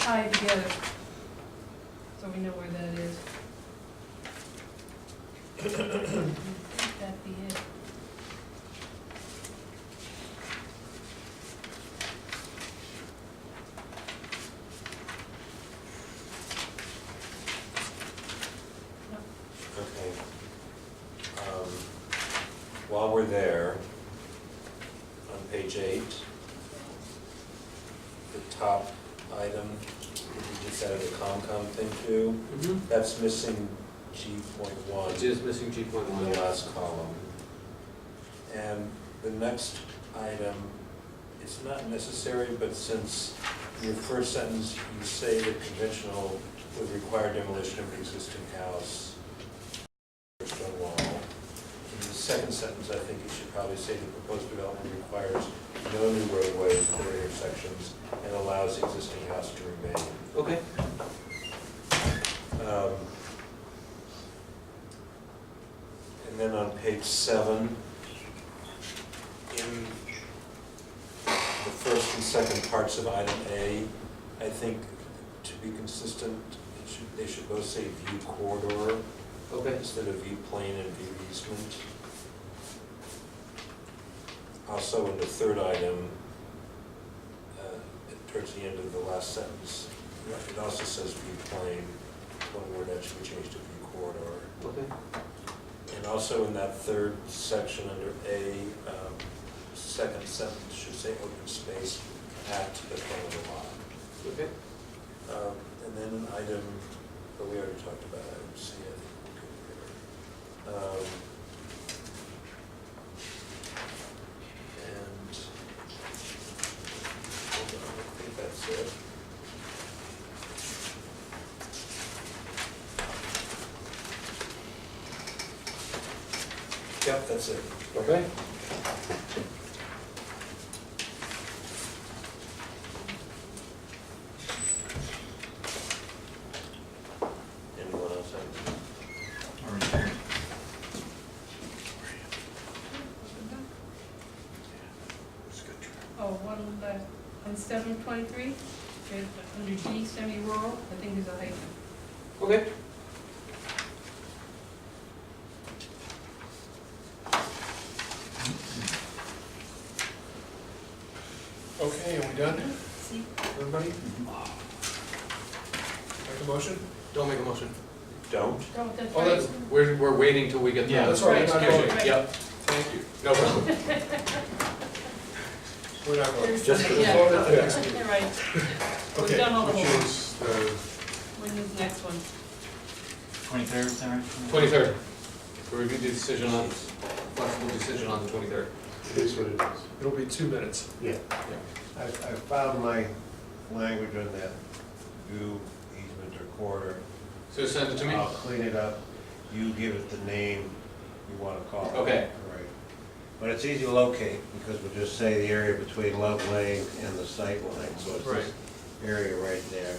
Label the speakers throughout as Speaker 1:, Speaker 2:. Speaker 1: tied together, so we know where that is. That'd be it.
Speaker 2: Okay. Um, While we're there, on page eight, the top item, that you just added the COMCOM thing to,
Speaker 3: Mhm.
Speaker 2: that's missing G point one
Speaker 3: It is missing G point
Speaker 2: on
Speaker 3: one.
Speaker 2: the last column. And the next item, it's not necessary, but since in your first sentence, you say that conventional would require demolition of an existing house or stone wall. In the second sentence, I think you should probably say the proposed development requires no new roadways or intersections and allows the existing house to remain.
Speaker 3: Okay,
Speaker 2: Um, And then on page seven, in the first and second parts of item A, I think to be consistent, it should, they should both say view corridor
Speaker 3: okay.
Speaker 2: instead of view plane and view easement. Also, in the third item, uh, towards the end of the last sentence, it also says view plane, one word that should be changed to view corridor.
Speaker 3: Okay.
Speaker 2: And also in that third section under A, um, second sentence should say open space at the front of the lot.
Speaker 3: Okay.
Speaker 2: Um, And then item, but we already talked about item C, I think. we're good there. Um, And, hold on, I think that's it. Yep, that's it.
Speaker 3: Okay.
Speaker 2: Anyone else have?
Speaker 1: Oh, one, left. on seven twenty-three, under G, semi-rural, I think is a hyphen.
Speaker 3: Okay.
Speaker 4: Okay, are we done,
Speaker 1: See,
Speaker 4: everybody? Mm-hmm. Make a motion?
Speaker 3: Don't make a motion.
Speaker 2: Don't?
Speaker 1: don't, that's
Speaker 4: Oh, that's-
Speaker 1: right.
Speaker 3: We're, we're waiting till we get the.
Speaker 4: Yeah, that's right,
Speaker 1: that's
Speaker 3: execution.
Speaker 1: right.
Speaker 3: Yep,
Speaker 4: Thank you.
Speaker 3: no problem.
Speaker 4: We're not voting.
Speaker 1: There's
Speaker 2: Just
Speaker 1: something,
Speaker 2: for the
Speaker 1: yeah.
Speaker 4: vote at the next
Speaker 1: Yeah,
Speaker 4: meeting.
Speaker 1: You're right, We've
Speaker 4: Okay,
Speaker 1: done all the
Speaker 4: which
Speaker 1: homework.
Speaker 4: is uh, the-
Speaker 1: when is the next one?
Speaker 5: Twenty-third, sorry?
Speaker 3: Twenty-third. We reviewed the decision on, flexible decision on the twenty-third.
Speaker 6: It is what it is.
Speaker 4: It'll be two minutes.
Speaker 6: Yeah. I, I found my language on that view easement or corridor.
Speaker 3: So send it to me.
Speaker 6: I'll clean it up. You give it the name you want to call it.
Speaker 3: Okay.
Speaker 6: All right. But it's easy to locate because we'll just say the area between Love Lane and the sight line. So it's
Speaker 3: Right.
Speaker 6: this area right there.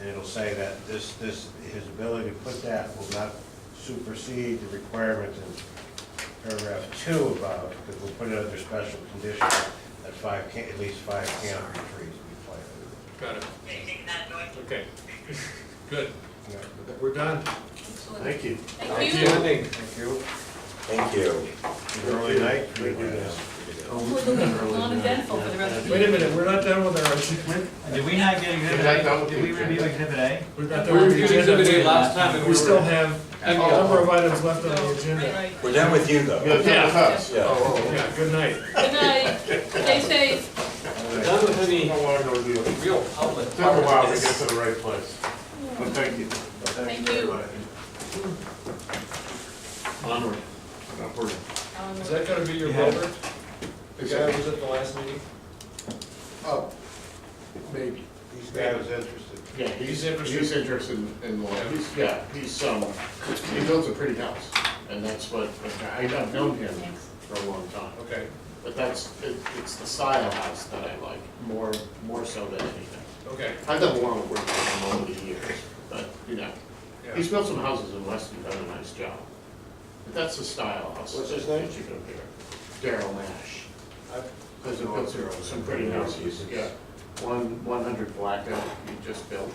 Speaker 6: And it'll say that this, this, his ability to put that will not supersede the requirement in paragraph two about, because we'll put it under special condition that five, ca- at least five canopy trees be planted.
Speaker 4: Got it. Okay. Good.
Speaker 6: Yeah.
Speaker 4: We're done.
Speaker 1: Excellent.
Speaker 6: you.
Speaker 1: Thank you.
Speaker 3: Thank you.
Speaker 6: Thank you.
Speaker 2: Thank you.
Speaker 6: Early night for you guys.
Speaker 1: We're looking non-eventful for the rest of the
Speaker 4: Wait a
Speaker 1: year.
Speaker 4: minute, we're not done with our agenda.
Speaker 5: Did we not get exhibit A? Did we review exhibit A?
Speaker 4: We're
Speaker 3: We
Speaker 4: not done with the
Speaker 3: reviewed exhibit
Speaker 4: agenda.
Speaker 3: A last time and we
Speaker 4: We still
Speaker 3: were.
Speaker 4: have a
Speaker 3: And-
Speaker 4: number of items left on the
Speaker 1: No,
Speaker 4: agenda.
Speaker 1: right, right.
Speaker 2: We're done with you, though.
Speaker 4: Yeah.
Speaker 2: Yeah.
Speaker 3: Oh,
Speaker 4: Yeah, good night.
Speaker 1: Good night, stay safe.
Speaker 3: We're Done with oh. any
Speaker 7: How long will it do? It
Speaker 3: real public.
Speaker 7: took a while to get to the right place, but thank you.
Speaker 1: Thank
Speaker 6: very
Speaker 1: you.
Speaker 6: much.
Speaker 3: Onward.
Speaker 7: Upward.
Speaker 1: Um,
Speaker 4: Is that gonna be your
Speaker 5: Yeah.
Speaker 4: voter? The guy who was at the last meeting?
Speaker 7: Up, maybe.
Speaker 6: These guys interested.
Speaker 7: Yeah, he's interested, he's interested in- in law, he's, yeah, he's, um, he builds a pretty house, and that's what, I- I've known him for a long time.
Speaker 4: Okay,
Speaker 7: But that's, it, it's the style house that I like, more, more so than anything.
Speaker 4: okay.
Speaker 7: I've done a lot of work with him over the years, but, you know,
Speaker 4: Yeah.
Speaker 7: he's built some houses in Weston, done a nice job. But that's the style house.
Speaker 6: What's his
Speaker 7: that
Speaker 6: name?
Speaker 7: you go there. Daryl Nash.
Speaker 6: I've-
Speaker 7: Because it built some, some pretty houses, yeah. one, one hundred Black Elk you just built.